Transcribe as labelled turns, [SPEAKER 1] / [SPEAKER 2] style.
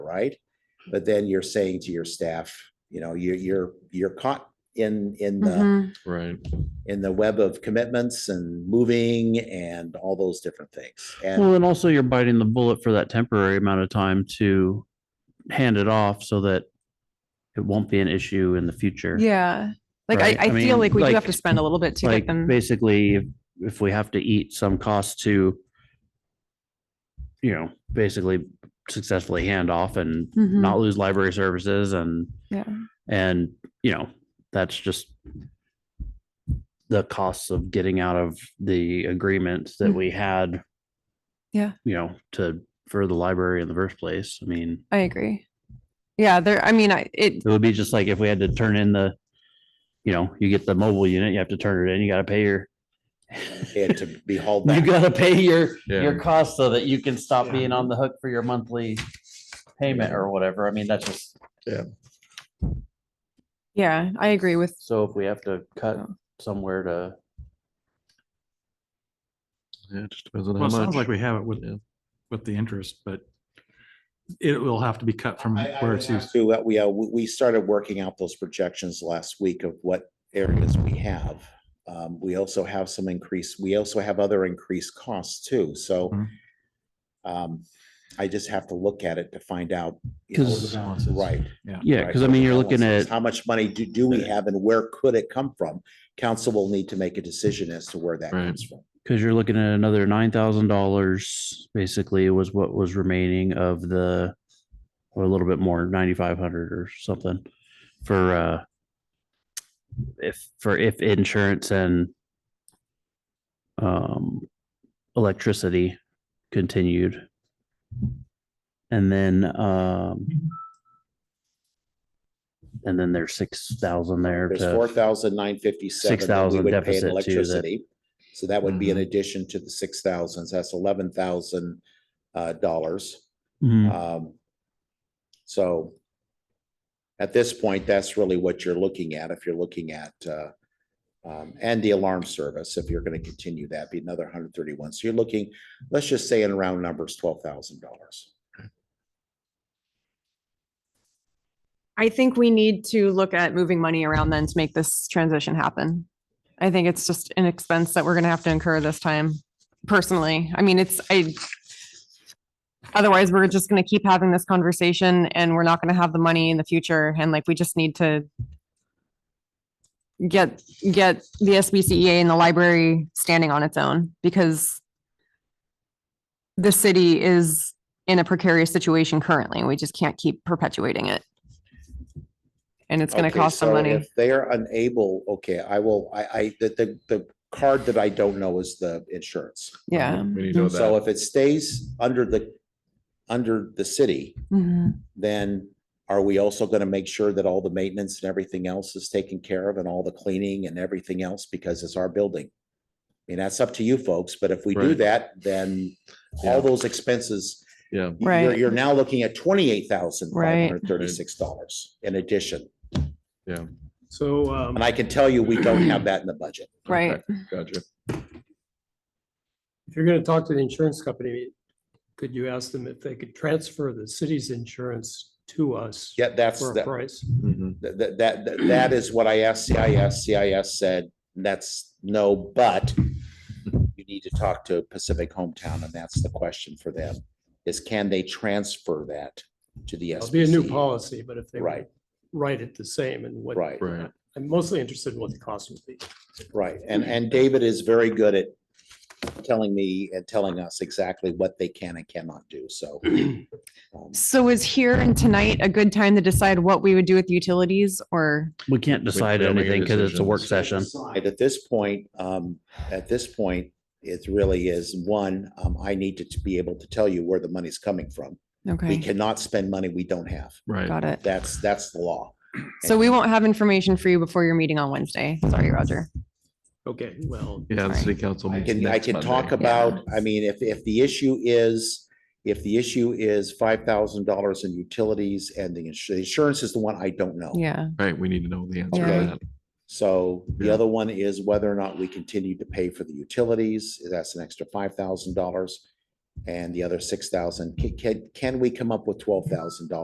[SPEAKER 1] right? But then you're saying to your staff, you know, you're, you're, you're caught in, in the,
[SPEAKER 2] Mhm.
[SPEAKER 3] Right.
[SPEAKER 1] in the web of commitments and moving and all those different things. And
[SPEAKER 3] Well, and also you're biting the bullet for that temporary amount of time to hand it off so that it won't be an issue in the future.
[SPEAKER 2] Yeah. Like
[SPEAKER 3] Right,
[SPEAKER 2] I, I
[SPEAKER 3] I
[SPEAKER 2] feel
[SPEAKER 3] mean,
[SPEAKER 2] like we do
[SPEAKER 3] like-
[SPEAKER 2] have to spend a little bit to get
[SPEAKER 3] Like
[SPEAKER 2] them.
[SPEAKER 3] basically, if- if we have to eat some cost to, you know, basically successfully hand off and
[SPEAKER 2] Mhm.
[SPEAKER 3] not lose library services and,
[SPEAKER 2] Yeah.
[SPEAKER 3] and, you know, that's just the costs of getting out of the agreements that
[SPEAKER 2] Mm.
[SPEAKER 3] we had.
[SPEAKER 2] Yeah.
[SPEAKER 3] You know, to, for the library in the first place. I mean.
[SPEAKER 2] I agree. Yeah, there, I mean, I, it,
[SPEAKER 3] It would be just like if we had to turn in the, you know, you get the mobile unit, you have to turn it in, you gotta pay your.
[SPEAKER 1] and to be hauled
[SPEAKER 3] You
[SPEAKER 1] back.
[SPEAKER 3] gotta pay your,
[SPEAKER 4] Yeah.
[SPEAKER 3] your cost so that you can stop being on the hook for your monthly payment or whatever. I mean, that's just,
[SPEAKER 2] yeah, I agree with,
[SPEAKER 3] so if we have to cut somewhere to.
[SPEAKER 4] Yeah, it just depends on
[SPEAKER 5] Well,
[SPEAKER 4] how
[SPEAKER 5] it sounds like
[SPEAKER 4] much.
[SPEAKER 5] we have it with,
[SPEAKER 4] Yeah.
[SPEAKER 5] with the interest, but it will have to be cut from
[SPEAKER 1] I- I
[SPEAKER 5] where
[SPEAKER 1] would
[SPEAKER 5] it's
[SPEAKER 1] have
[SPEAKER 5] used.
[SPEAKER 1] To what we, uh, we we started working out those projections last week of what areas we have. Um, we also have some increase, we also have other increased costs too, so.
[SPEAKER 5] Mhm.
[SPEAKER 1] Um, I just have to look at it to find out. you know,
[SPEAKER 3] 'Cause-
[SPEAKER 5] Balances.
[SPEAKER 1] Right.
[SPEAKER 3] Yeah,
[SPEAKER 1] right,
[SPEAKER 3] cause I
[SPEAKER 1] what
[SPEAKER 3] mean,
[SPEAKER 1] the
[SPEAKER 3] you're looking
[SPEAKER 1] balance
[SPEAKER 3] at,
[SPEAKER 1] is, How much money do, do we have and where could it come from? Council will need to make a decision as to where that
[SPEAKER 4] Right.
[SPEAKER 1] comes from.
[SPEAKER 3] cause you're looking at another nine thousand dollars, basically was what was remaining of the. Or a little bit more, ninety-five hundred or something for, uh. If, for if insurance and. Um, electricity continued. And then, um. And then there's six thousand there.
[SPEAKER 1] There's
[SPEAKER 3] to-
[SPEAKER 1] four thousand nine fifty-seven.
[SPEAKER 3] 6,000 uh, deficit to Mm-hmm. the-
[SPEAKER 1] electricity. So that would be in addition to the six thousands, that's eleven thousand uh dollars.
[SPEAKER 3] Mhm.
[SPEAKER 2] Hmm.
[SPEAKER 1] Um, so at this point, that's really what you're looking at, if you're looking at uh um, and the alarm service, if you're gonna continue that, be another hundred thirty-one. So you're looking, let's just say in round numbers, twelve thousand dollars.
[SPEAKER 2] I think we need to look at moving money around then to make this transition happen. I think it's just an expense that we're gonna have to incur this time personally. I mean, it's, I. Otherwise, we're just gonna keep having this conversation and we're not gonna have the money in the future and like, we just need to. Get, get the SBCEA E and the library standing on its own because. The city is in a precarious situation currently. and We just can't keep perpetuating it. And it's gonna
[SPEAKER 1] Okay,
[SPEAKER 2] cost some
[SPEAKER 1] so
[SPEAKER 2] money.
[SPEAKER 1] If they are unable, okay, I will, I, I, the, the, the card that I don't know is the insurance.
[SPEAKER 2] Yeah.
[SPEAKER 4] We need to know
[SPEAKER 1] So
[SPEAKER 4] that.
[SPEAKER 1] if it stays under the, under the city,
[SPEAKER 2] Mhm.
[SPEAKER 1] then are we also gonna make sure that all the maintenance and everything else is taken care of and all the cleaning and everything else, because it's our building? I mean, that's up to you folks, but if we do
[SPEAKER 4] Right.
[SPEAKER 1] that, then
[SPEAKER 4] Yeah.
[SPEAKER 1] all those expenses,
[SPEAKER 4] Yeah,
[SPEAKER 1] you're,
[SPEAKER 2] Right.
[SPEAKER 1] you're now looking at twenty-eight thousand five hundred thirty-six dollars in addition.
[SPEAKER 4] yeah.
[SPEAKER 6] So, um,
[SPEAKER 1] And I can tell you, we don't have that in the budget.
[SPEAKER 2] Right.
[SPEAKER 4] Okay, Gotcha.
[SPEAKER 6] if you're gonna talk to the insurance company, could you ask them if they could transfer the city's insurance to us?
[SPEAKER 1] Yeah, that's,
[SPEAKER 6] For a
[SPEAKER 1] that,
[SPEAKER 6] price?
[SPEAKER 4] Mhm.
[SPEAKER 1] that, that, that- that is what I asked CIS. CIS said, that's no, but you need to talk to Pacific Hometown, and that's the question for them, is can they transfer that to the
[SPEAKER 6] It'll be a new
[SPEAKER 1] SBC?
[SPEAKER 6] policy, but if they. would
[SPEAKER 1] Right.
[SPEAKER 6] Write it the same and what.
[SPEAKER 1] Right,
[SPEAKER 4] Right.
[SPEAKER 6] I'm mostly interested in what the cost would be.
[SPEAKER 1] right. And, and David is very good at telling me and telling us exactly what they can and cannot do, so. um,
[SPEAKER 2] So is here and tonight a good time to decide what we would do with utilities or?
[SPEAKER 3] We can't decide
[SPEAKER 4] don't make a
[SPEAKER 3] anything because it's a work
[SPEAKER 4] decision.
[SPEAKER 3] session.
[SPEAKER 1] And at this point, um, at this point, it really is, one, um, I need to be able to tell you where the money's coming from. We
[SPEAKER 2] Okay,
[SPEAKER 1] cannot spend money we don't have.
[SPEAKER 4] Right.
[SPEAKER 2] got it.
[SPEAKER 1] That's, that's the law.
[SPEAKER 2] So we won't have information for you before your meeting on Wednesday. Sorry, Roger.
[SPEAKER 6] Okay, well,
[SPEAKER 4] Yeah, the
[SPEAKER 2] Sorry.
[SPEAKER 4] city council.
[SPEAKER 1] I
[SPEAKER 4] meets
[SPEAKER 1] can, I
[SPEAKER 4] next
[SPEAKER 1] can talk
[SPEAKER 4] Monday.
[SPEAKER 1] about, I mean, if, if the issue is, if the issue is five thousand dollars in utilities and the insu- insurance is the one I don't know.
[SPEAKER 2] Yeah,
[SPEAKER 4] Right, we need to know the answer
[SPEAKER 2] Yeah.
[SPEAKER 4] to that.
[SPEAKER 1] So the
[SPEAKER 4] Yeah.
[SPEAKER 1] other one is whether or not we continue to pay for the utilities. That's an extra five thousand dollars. And the other six thousand, can, can, can we come up with twelve thousand dollars?